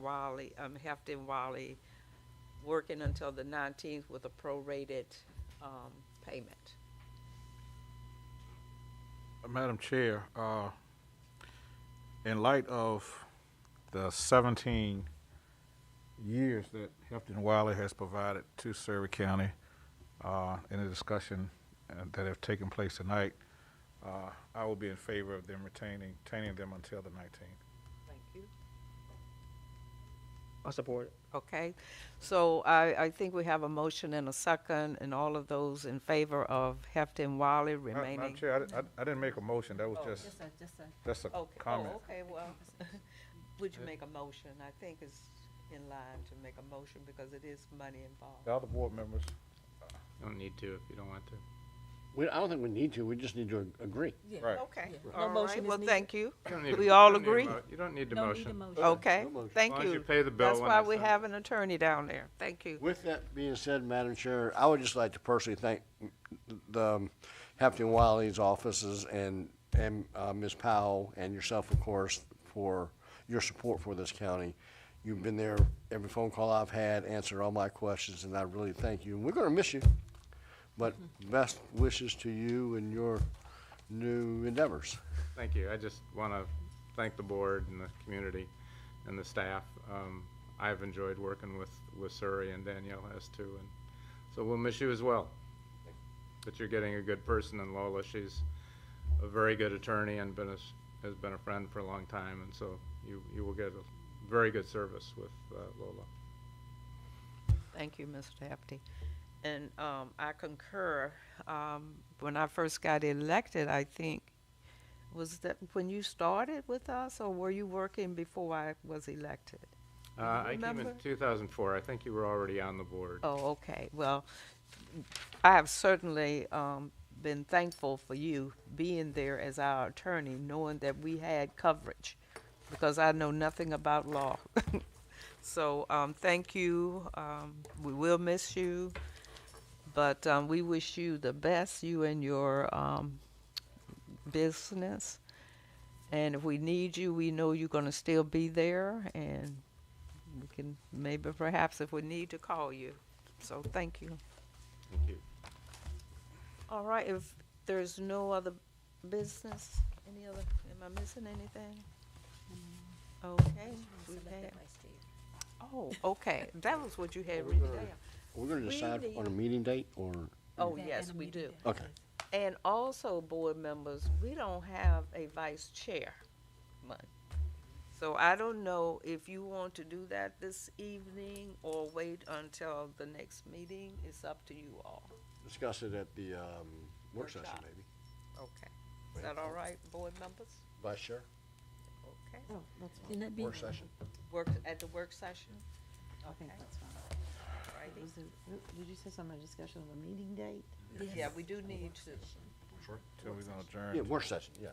Wally, um, Hefty and Wally working until the nineteenth with a prorated, um, payment. Madam Chair, uh, in light of the 17 years that Hefton Wiley has provided to Surrey County, uh, in the discussion uh, that have taken place tonight, uh, I will be in favor of them retaining, retaining them until the 19th. Thank you. I support it. Okay, so I, I think we have a motion and a second, and all of those in favor of Hefty and Wiley Ma- Madam remaining. Chair, I di- I, I didn't make a motion, that was Oh. just, Just a, just a, that's a Okay, comment. oh, okay, well, would you make a motion? I think it's in line to make a motion because it is money involved. The other board members, Don't need to if you don't want to. We, I don't think we need to, we just need to ag- agree. Oh. yeah. right. Okay, No all motion right, is well, needed. thank you. You don't need a- We you all don't need a agree? mo- You don't need the Don't need a motion. motion. Okay, no motion. thank As long as you you. pay the bill That's when why they we send it. have an attorney down there. Thank you. With that being said, Madam Chair, I would just like to personally thank the um, Hampton Wiley's offices and, and uh, Ms. Powell and yourself, of course, for your support for this county. You've been there every phone call I've had, answered all my questions, and I really thank you. And we're gonna miss you, but best wishes to you and your new endeavors. Thank you. I just want to thank the board and the community and the staff. Um, I've enjoyed working with, with Surrey and Danielle has too, and so we'll miss you as well. But you're getting a good person in Lola. She's a very good attorney and been a s has been a friend for a long time, and so you, you will get a very good service with uh, Lola. Thank you, Mr. Hefty. And um, I concur. Um, When I first got elected, I think, was that when you started with us, or were you working before I was elected? Uh, I came in remember? 2004. I think you were already on the board. Oh, okay. Well, I have certainly um, been thankful for you being there as our attorney, knowing that we had coverage, because I know nothing about law. so um, thank you. Um, we will miss you, but um, we wish you the best, you and your um, business. And if we need you, we know you're going to still be there, and we can maybe perhaps if we need to call you. So thank you. Thank you. All right, if there's no other business, any other, am I missing anything? Mm. Okay, we select have, that vice chair. oh, okay, that was what you had We're written gonna- down. We're gonna We decide need- on a meeting date or, Oh, That and yes, a we meeting do. day. okay. And also, board members, we don't have a vice chair. month. So I don't know if you want to do that this evening or wait until the next meeting. It's up to you all. Discuss it at the, um, work session Workshop. maybe. Okay. Is that all right, board members? Vice Chair, Okay. Oh, Can that be? work session. Work, at the work session? Okay. Alrighty. Did you say something, discussion of a meeting date? Yeah, we do need to, Till we're gonna adjourn. Yeah, work session, yeah.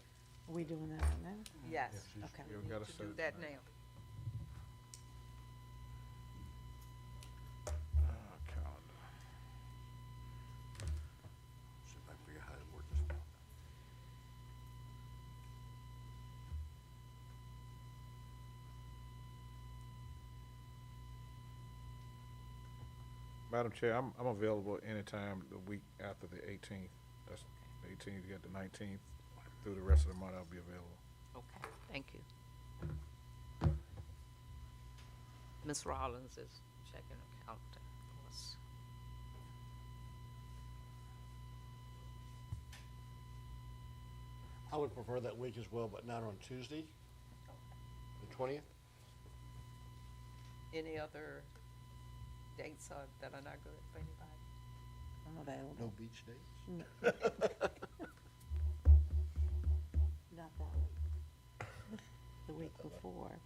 Are we doing that right now? yes, Okay. We've we got need to a do certain- that now. Uh, Oh, calendar. See if I can figure out how to work this. Madam Chair, I'm, I'm available anytime the week after the eighteenth. That's the eighteenth, you got the nineteenth, through the rest of the month I'll be available. Okay, thank you. Ms. Rollins is checking her calendar. for us. I would prefer that week as well, but not on Tuesday, the twentieth. Any other dates are- that are not good for anybody? I'm available. No beach days? Not that week. The week before.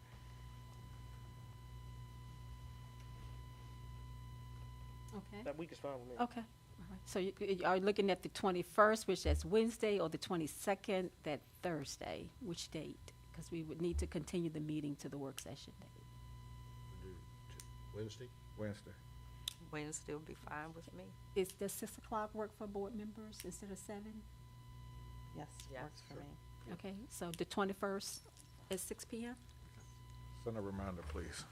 Okay, That week is fine with me. okay. All right. So you, you are looking at the twenty-first, which is Wednesday, or the twenty-second, that Thursday, which date? Because we would need to continue the meeting to the work session date. Wednesday? Wednesday. Wednesday will be fine with me. Is, does six o'clock work for board members instead of seven? Yes, Yeah, works for sure. me. Okay, so the twenty-first at six P M? Send a reminder, please.